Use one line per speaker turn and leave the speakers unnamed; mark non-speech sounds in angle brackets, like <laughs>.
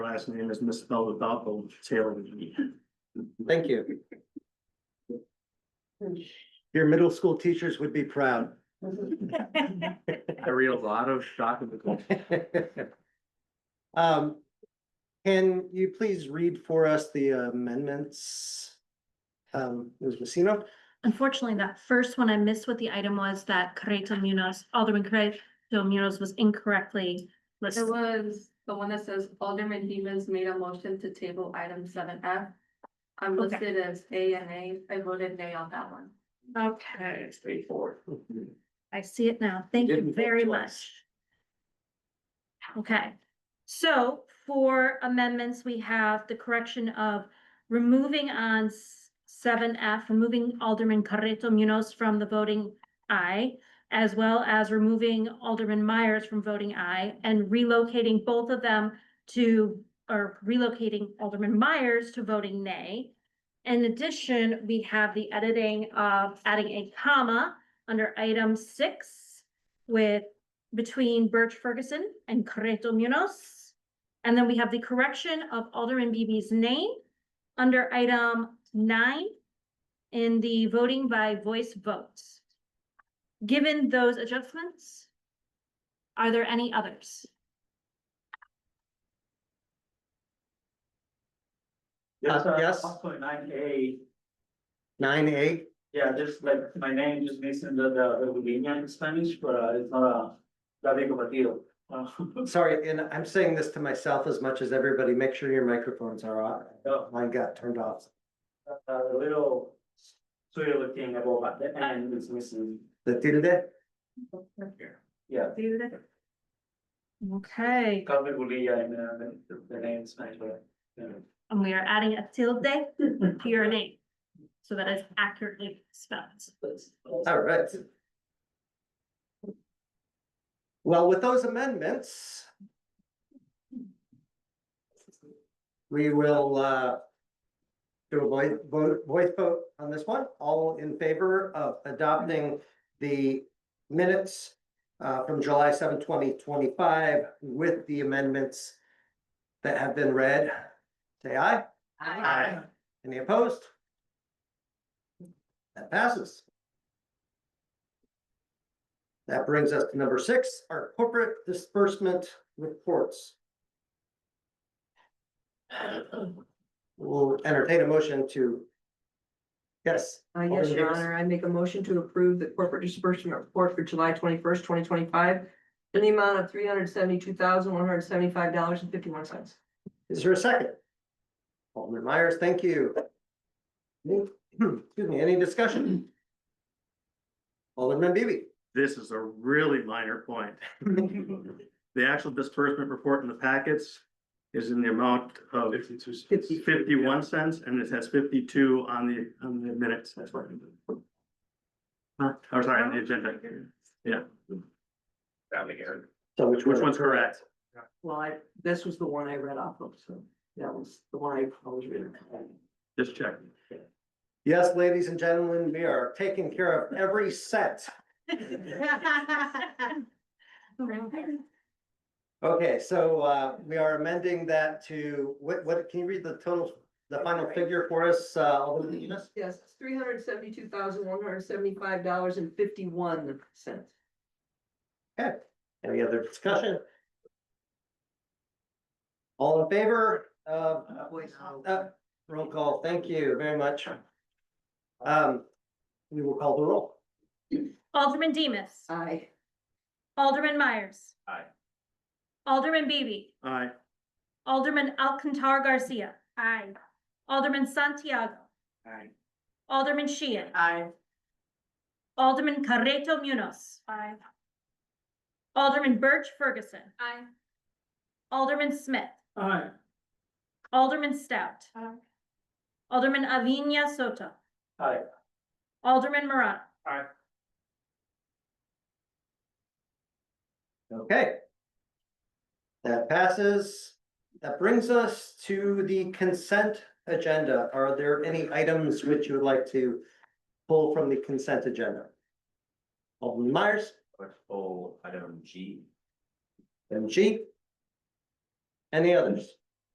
last name is misspelled without the tail. of the E.
Thank you. Your middle school teachers would be proud.
I read a lot of documents.
<laughs> Um, can you please read for us the amendments? Um, Ms. Messina,
Unfortunately, that first one I missed what the item was that Correto Munoz, Alderman Correto Munoz was incorrectly
It
listed.
was the one that says Alderman Demus made a motion to table item seven F. I'm
Okay.
listed as A and A. I voted nay on that one.
Okay. I see it now. Thank
didn't
you
vote
very
twice.
much. Okay, so for amendments, we have the correction of removing on seven F, removing Alderman Carreto Munoz from the voting aye, as well as removing Alderman Myers from voting aye and relocating both of them to, or relocating Alderman Myers to voting nay. In addition, we have the editing of adding a comma under item six with, between Birch Ferguson and Correto Munoz. And then we have the correction of Alderman Beebe's name under item nine in the voting by voice votes. Given those adjustments, are there any others?
Yes, uh, yes.
nine A,
nine A,
yeah, just like my name just makes it the, the, Spanish, but uh, it's not a, that big of a deal. Uh, <laughs>
sorry, and I'm saying this to myself as much as everybody, make sure your microphones are on. Mine got turned off.
a little surreal thing about the end is missing.
The tilde,
Yeah.
Okay,
Calvin Gulia and uh, the- the name is Spanish, but. yeah.
and we are adding a tilde to your name, so that is accurately spelled.
all right. Well, with those amendments, we will, uh, do a voice, vote, voice vote on this one. All in favor of adopting the minutes uh, from July 7, 2025, with the amendments that have been read, say aye. Aye. Any opposed? That passes. That brings us to number six, our corporate disbursement reports.
Uh,
We'll entertain a motion to. Yes,
Uh, yes,
Alderman
your
Davis.
honor, I make a motion to approve the corporate disbursement report for July twenty-first, twenty twenty-five. In the amount of three hundred seventy-two thousand, one hundred seventy-five dollars and fifty-one cents.
is there a second? Alderman Myers, thank you. <clears throat> Excuse me, any discussion? Alderman Beebe.
This is a really minor point. The actual disbursement report in the packets is in the amount of
Fifty-two.
Fifty.
fifty-one cents and it has fifty-two on the, on the minutes. That's what. Huh, I'm sorry, on the agenda.
So which
Which one's correct?
Well, I, this was the one I read off of, so that was the one I was reading.
Just checking.
Yes, ladies and gentlemen, we are taking care of every set. Okay, so uh, we are amending that to, what, what, can you read the total, the final figure for us, uh, Alderman Eunice?
Yes, it's three hundred seventy-two thousand, one hundred seventy-five dollars and fifty-one cents.
Okay, any other discussion? All in favor of, uh, roll call, thank you very much. Um, we will call the roll.
Alderman Demas.
Aye.
Alderman Myers.
Aye.
Alderman Beebe.
Aye.
Alderman Alcantar Garcia. Aye. Alderman Santiago.
Aye.
Alderman Sheehan.
Aye.
Alderman Carreto Munoz.
Aye.
Alderman Birch Ferguson.
Aye.
Alderman Smith.
Aye.
Alderman Stout.
Aye.
Alderman Avinia Soto.
Aye.
Alderman Morano.
Okay. That passes. That brings us to the consent agenda. Are there any items which you would like to pull from the consent agenda? Alderman Myers,
Let's pull item G.
item G. Any others?